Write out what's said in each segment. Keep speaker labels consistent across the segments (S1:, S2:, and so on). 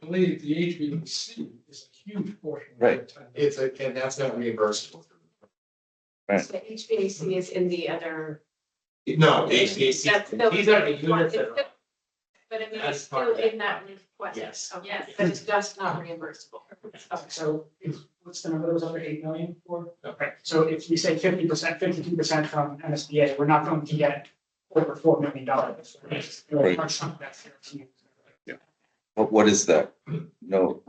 S1: believe the HVAC is a huge portion. of the
S2: Right.
S1: time.
S3: It's a, and that's not reimbursable.
S2: Right.
S4: So HVAC is in the other.
S3: No, HVAC,
S4: That's the-
S3: these are the units that are.
S4: But I mean,
S3: That's
S4: it's
S3: part
S4: still
S3: of that.
S4: in that request.
S3: Yes.
S4: Okay,
S5: Yes.
S4: But it's just not reimbursable.
S6: Okay, so is, what's the number that was under eight million for?
S3: No.
S6: Right, so if we say fifty percent, fifty-two percent from MSBA, we're not going to get over four million dollars.
S2: Right. But what is that? No,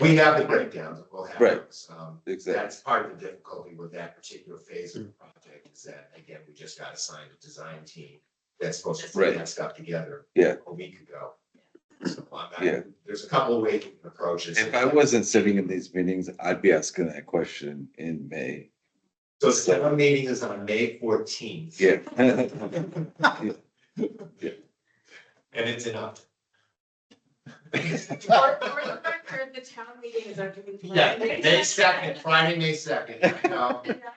S3: We have the breakdowns, we'll have
S2: Right.
S3: those. Um,
S2: exactly.
S3: that's part of the difficulty with that particular phase of the project is that, again, we just got assigned a design team that's supposed to put
S2: Right.
S3: that stuff together.
S2: Yeah.
S3: A week ago. So I'm not-
S2: Yeah.
S3: There's a couple of ways you can approach it.
S2: If I wasn't sitting in these meetings, I'd be asking that question in May.
S3: So the second meeting is on May fourteenth.
S2: Yeah.
S3: And it's enough.
S4: For, for the record, the town meeting is under.
S3: Yeah, May second, Friday, May second.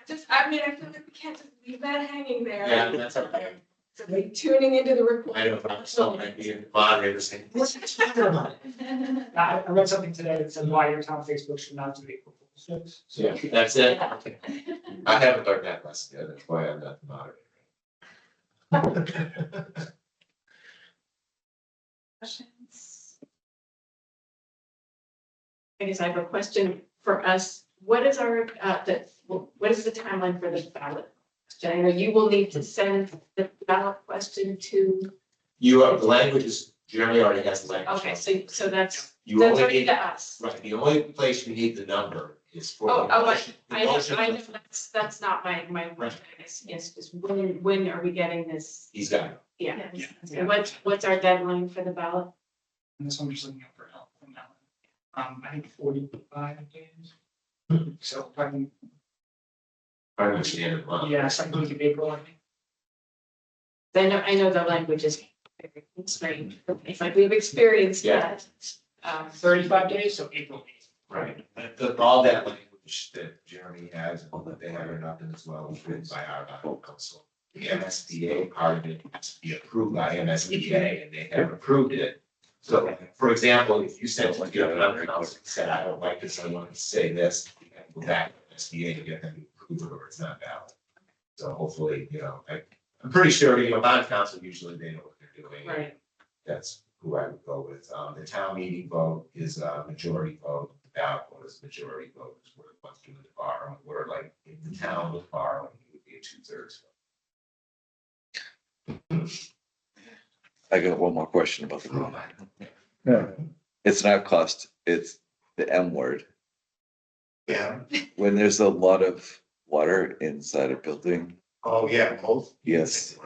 S4: Just, I mean, I feel like we can't just leave that hanging there.
S3: Yeah, that's okay.
S4: So like tuning into the
S3: I
S4: recording.
S3: don't know, I'm still might be in the moderator saying, what's the matter about it?
S6: I, I read something today that said why your town Facebook should not do equal proposals.
S3: So yeah, that's it. I haven't learned that lesson yet, that's why I'm not the moderator.
S4: Questions? I guess I have a question for us. What is our, uh, the, what is the timeline for the ballot? question? I know you will need to send the ballot question to,
S3: You have, the language is, Jeremy already has the language.
S4: okay, so, so that's,
S3: You
S4: that's
S3: only
S4: already to
S3: need,
S4: us.
S3: right, the only place you need the number is for.
S4: Oh,
S3: the
S4: oh,
S3: motion. The
S4: I know,
S3: motion-
S4: I know, that's, that's not my, my,
S3: Right.
S4: yes, yes, just when, when are we getting this?
S3: He's got it.
S4: Yeah.
S6: Yeah.
S4: And what's, what's our deadline for the ballot?
S6: And this one just looking out for help from that one. Um, I think forty-five days. So, I mean,
S3: Pretty much the end of the month.
S6: yeah, second week of April, I think.
S4: I know, I know the language is very constrained, it's like we've experienced
S3: Yeah.
S4: that. Um,
S6: Thirty-five days, so April eighth.
S3: Right, That- that- all that language that Jeremy has, all that they have or nothing as well, was written by our body council. The MSBA part of it has to be approved by MSBA and they have approved it. So, for example, if you said, like, you have another council, that said, I don't like this, I want to say this, you have to go back to MSBA to get them to approve it or it's not valid. So hopefully, you know, I, I'm pretty sure, you know, bond council, usually they know what they're doing.
S4: right,
S3: That's who I would go with. Um, the town meeting vote is a majority vote, the ballot vote is majority vote, is where it wants to borrow, where like, if the town was borrowing, it would be a two thirds.
S2: I got one more question about the room. It's not cost, it's the M word.
S3: Yeah,
S2: When there's a lot of water inside a building,
S3: oh, yeah, both.
S2: Yes.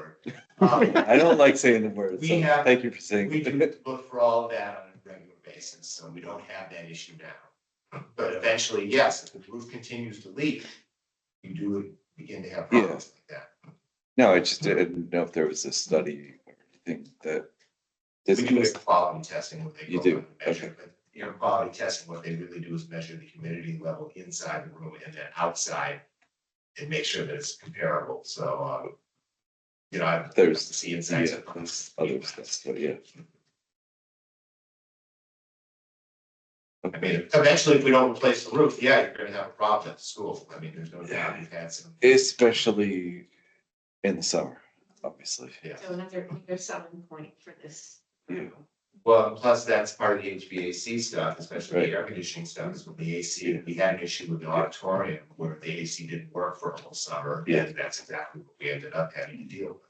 S3: Um,
S2: I don't like saying the word.
S3: We
S2: so
S3: have-
S2: Thank you for saying.
S3: We do
S2: it.
S3: look for all of that on a regular basis, so we don't have that issue now. But eventually, yes, if the roof continues to leak, you do begin to have problems like that.
S2: No, I just didn't know if there was a study or anything that.
S3: We
S2: this
S3: do a quality testing, what they.
S2: You
S3: go
S2: do,
S3: and measure, but You know, quality testing, what they really do is measure the humidity level inside the room and then outside. And make sure that it's comparable, so, um. You know, I.
S2: There's-
S3: See inside.
S2: Yeah, there's other stuff, but yeah.
S3: I mean, eventually, if we don't replace the roof, yeah, you're gonna have a problem at the school, I mean, there's no doubt, we've had some.
S2: Especially in the summer, obviously.
S3: Yeah.
S4: so another, another selling point for this.
S2: Yeah.
S3: Well, and plus that's part of the HVAC stuff, especially the air conditioning stuff, is with the AC, we had an issue with the auditorium where the AC didn't work for a whole summer.
S2: Yeah.
S3: And that's exactly what we ended up having to deal with.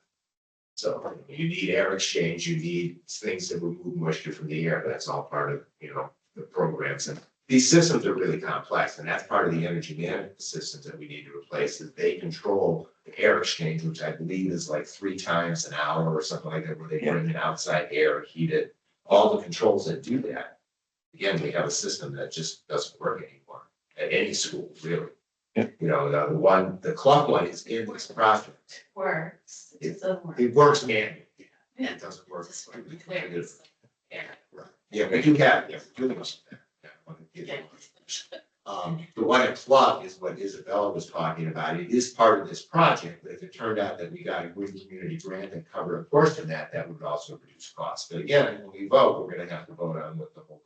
S3: So you need air exchange, you need things that remove moisture from the air, that's all part of, you know, the programs and. These systems are really complex and that's part of the energy management systems that we need to replace, is they control the air exchange, which I believe is like three times an hour or something like that, where they bring in outside air, heat it all the controls that do that. Again, we have a system that just doesn't work anymore at any school, really.
S2: Yeah.
S3: You know, the the one, the clock one is in this project.
S5: Works.
S3: It-
S5: doesn't work.
S3: It works manually.
S5: Yeah.
S3: It doesn't work.
S5: Just work.
S3: completely
S5: There it
S3: manually.
S5: is. Yeah.
S3: Right. Yeah, we do have, yeah, we do have some of that. That one is-
S5: Yeah.
S3: Um, the one at clock is what Isabella was talking about. It is part of this project, but if it turned out that we got a green community grant and covered a portion of that, that would also reduce costs. But again, when we vote, we're gonna have to vote on what the whole